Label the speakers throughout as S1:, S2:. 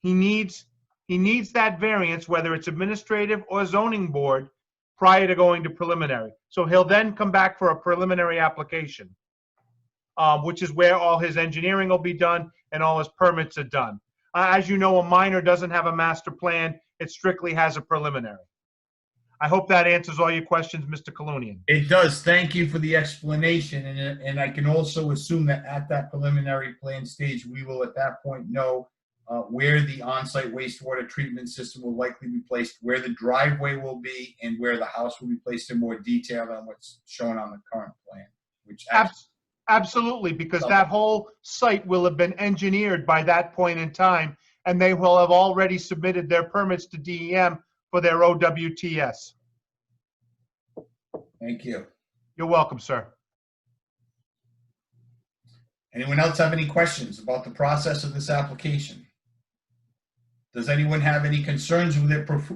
S1: he needs, he needs that variance, whether it's administrative or zoning board, prior to going to preliminary. So he'll then come back for a preliminary application, uh, which is where all his engineering will be done and all his permits are done. Uh, As you know, a minor doesn't have a master plan. It strictly has a preliminary. I hope that answers all your questions, Mr. Colonian.
S2: It does. Thank you for the explanation, and, and I can also assume that at that preliminary plan stage, we will at that point know uh, where the on-site wastewater treatment system will likely be placed, where the driveway will be, and where the house will be placed in more detail than what's shown on the current plan, which actually
S1: Abs- Absolutely, because that whole site will have been engineered by that point in time, and they will have already submitted their permits to DEM for their OWTS.
S2: Thank you.
S1: You're welcome, sir.
S2: Anyone else have any questions about the process of this application? Does anyone have any concerns with it prof-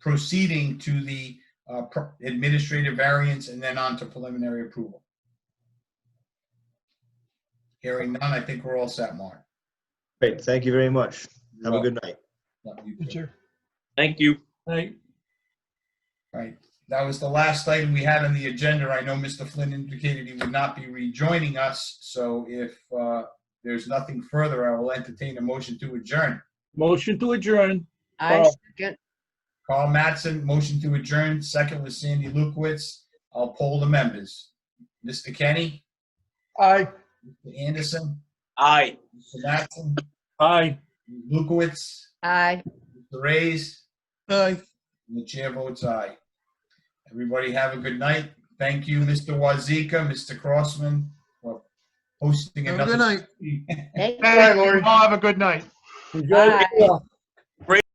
S2: proceeding to the uh, pr- administrative variance and then on to preliminary approval? Hearing none, I think we're all set, Mark.
S3: Great, thank you very much. Have a good night.
S2: Love you, too.
S4: Thank you.
S2: All Right, that was the last item we had on the agenda. I know Mr. Flynn indicated he would not be rejoining us, so if uh, there's nothing further, I will entertain a motion to adjourn.
S4: Motion to adjourn.
S5: I
S4: Carl.
S5: second.
S2: Carl Mattson, motion to adjourn, second was Sandy Lukowitz. I'll poll the members. Mr. Kenny? Aye. Mr. Anderson?
S4: Aye.
S2: Mr. Mattson?
S4: Aye.
S2: Lukowitz?
S5: Aye.
S2: Mr. Reyes?
S4: Aye.
S2: And the chair votes aye. Everybody have a good night. Thank you, Mr. Wazika, Mr. Crossman, for hosting
S6: Have a good
S2: another.
S6: night.
S5: Thank you.
S1: Thank you. All have a good night.
S4: Enjoy.
S5: Aye.